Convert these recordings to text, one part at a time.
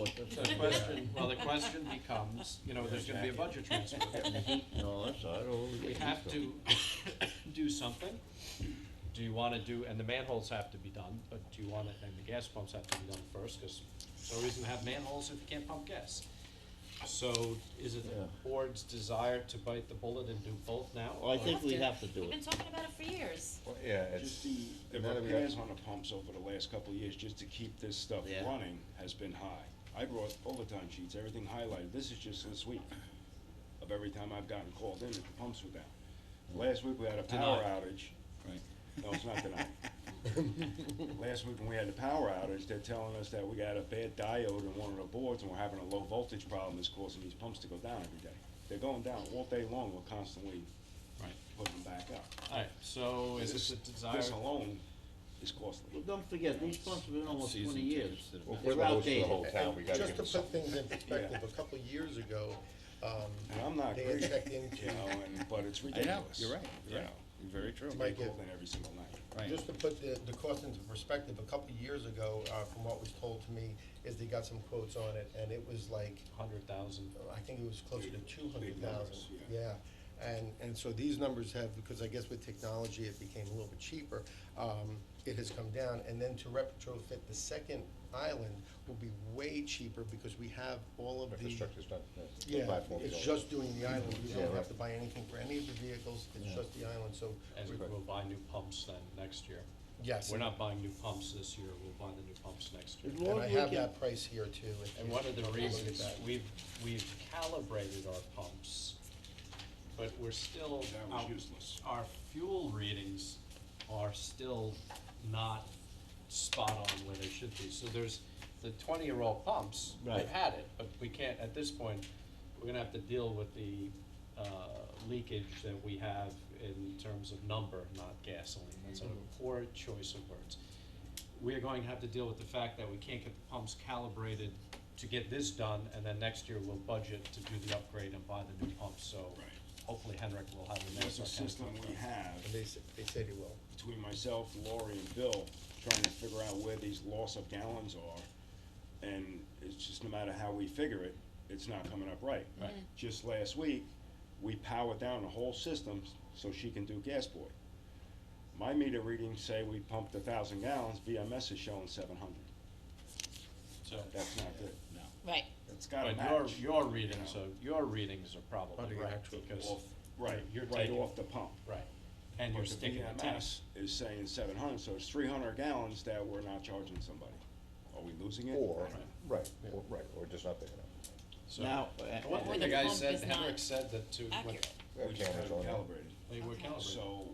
So the question, well, the question becomes, you know, there's gonna be a budget transfer. No, that's, I don't. We have to do something. Do you wanna do, and the manholes have to be done, but do you wanna, and the gas pumps have to be done first, cause there's no reason to have manholes if you can't pump gas. So is it Yeah. the board's desire to bite the bullet and do both now? Well, I or- think we have to do We've been it. talking about it for years. Well, yeah, it's, Just the, the now that we got- repairs on the pumps over the last couple of years, just to keep this stuff Yeah. running, has been high. I brought overtime sheets, everything highlighted, this is just this week, of every time I've gotten called in that the pumps were down. Last week we had a power Denied. outage. No, it's not tonight. Last week when we had the power outage, they're telling us that we got a bad diode in one of the boards and we're having a low voltage problem that's causing these pumps to go down every day. They're going down all day long, we're constantly Right, putting them back up. alright, so is This- it the desire? This alone is costly. But Don't forget, these pumps have been almost Season twenty tickets years. that have They're been proposed for the outdated. whole town, we gotta give Just to them put something. things in perspective, a couple of years ago, um, And I'm not They greedy, check into- you know, and, but it's ridiculous. you're right, you're right. You're very true. To Might get get- called in every single night. Right. Just to put the, the cost into perspective, a couple of years ago, uh, from what was told to me, is they got some quotes on it, and it was like, Hundred thousand. I think it was closer to two Big hundred thousand. numbers, Yeah, and, and so these numbers have, because I guess with technology, it became a little bit cheaper, um, it has come down, and then to retrofit the second island will be way cheaper, because we have all of the. Infrastructure's done. Yeah, Platform's it's all- just doing the island, we Yeah, don't right. have to buy anything for any of the vehicles, it's just the island, so. And we're- we'll buy new pumps then next year. Yes. We're not buying new pumps this year, we'll buy the new pumps next year. As And long I as we have can- that price here too. if- And if one you of the want to look at reasons, that. we've, we've calibrated our pumps, but we're still. That was useless. Our fuel readings are still not spot on where they should be, so there's the twenty-year-old pumps, Right. we've had it, but we can't, at this point, we're gonna have to deal with the, uh, leakage that we have in terms of number, not gasoline, that's a Mm-hmm. poor choice of words we are going to have to deal with the fact that we can't get the pumps calibrated to get this done, and then next year we'll budget to do the upgrade and buy the new pumps, so Right. hopefully Henrik will have the That's next. a system we have And they, s- they said it will. between myself, Lori and Bill, trying to figure out where these loss of gallons are. And it's just no matter how we figure it, it's not coming up right. Right. Just last week, we powered down the whole system so she can do gas boy. My meter readings say we pumped a thousand gallons, BMS is showing seven hundred. So, That's not good. No. Right. It's gotta but your, match. your readings are, your readings are Under probably your right, actual because, off, right, you're right taking- off the pump. right, and you're But the sticking the test. VMS Is saying seven hundred, so it's three hundred gallons that we're not charging somebody. Are we losing it? Or, right, or, right, or just not big enough. So- Now, uh, And One Or thing the the guy pump said, is not Henrik said that to, when Accurate. We just Cameras have on it there. calibrated. they were Okay. calibrated, So,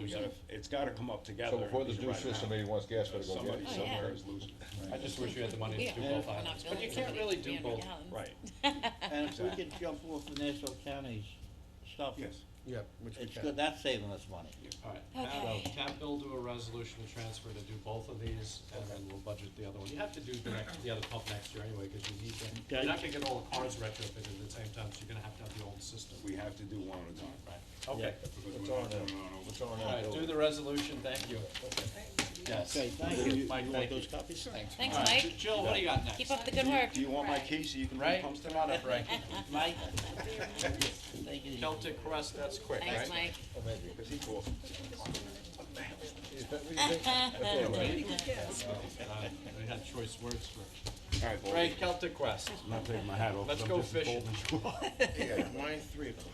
we gotta, it's gotta come up together. So before and this be new right system, now. maybe wants gas, better go get Somebody it. Oh, yeah. somewhere is losing. I just wish we had the money to do Yeah. both We're not islands, but you building can't really do something both, 300 gallons. Right, and if we could jump off the Nassau County's stuff, yes. Yeah, which we it's can. good, that's saving us money. Alright, Okay. have, have Bill do a resolution to transfer to do both of these, and then we'll budget the other one. You have to do the next, the other pump next year anyway, cause you need to, you're Okay. not gonna get all the cars retrofitted at the same time, so you're gonna have to have the old system. We have to do one at a time. Right, okay, Because we're not doing it on over- alright, do the resolution, thank you. Yes. Okay, thank you. Mike, You want thank you. those copies? Thanks. Thanks, Alright, Mike. Jill, what do you got next? Keep up the good work. Do you want my key so you can Right, pump stuff? come on up, Ray. Mike? Take it easy. Celtic Crest, that's quick, right? Thanks, Mike. Oh, maybe. Because he calls. Is that what you think? That's all right. Uh, We had choice words for All right, it. Baldy. Ray, Celtic Crest, I'm not taking my hat off. let's I'm go just as fishing. bold as you. Yeah, mine three o'clock.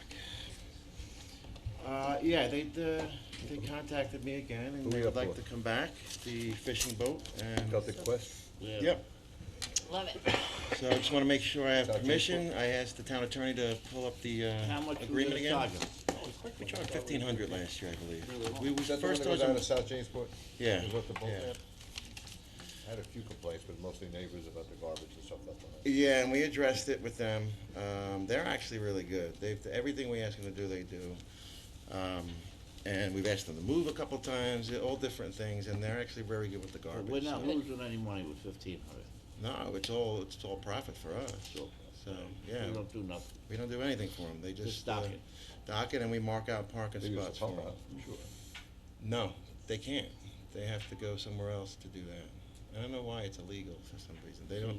Uh, yeah, they, uh, they contacted me again and Who they we would up like for? to come back, the fishing boat and. Got the quest? Yep, Love it. so I just wanna make sure I have Got the- permission, I asked the town attorney to pull up the, How uh, much we agreement gonna charge again. 'em? We charged fifteen hundred last year, I believe. We was, Is that the one first that it goes was, down to a- South Jamesport? Yeah, Is what the boat yeah. had? I had a few complaints, but mostly neighbors about the garbage and stuff like that. yeah, and we addressed it with them, um, they're actually really good, they've, everything we ask them to do, they do. Um, and we've asked them to move a couple times, all different things, and they're actually very good with the But garbage. We're not so- losing any money with fifteen hundred. No, it's all, it's all profit for us. So, yeah, We don't do nothing. we don't do anything for them. They just. Just dock uh, it. Dock it and we mark out parking They use spots the for pump them. out, I'm sure. No, they can't. They have to go somewhere else to do that. I don't know why it's illegal for some reason. They don't,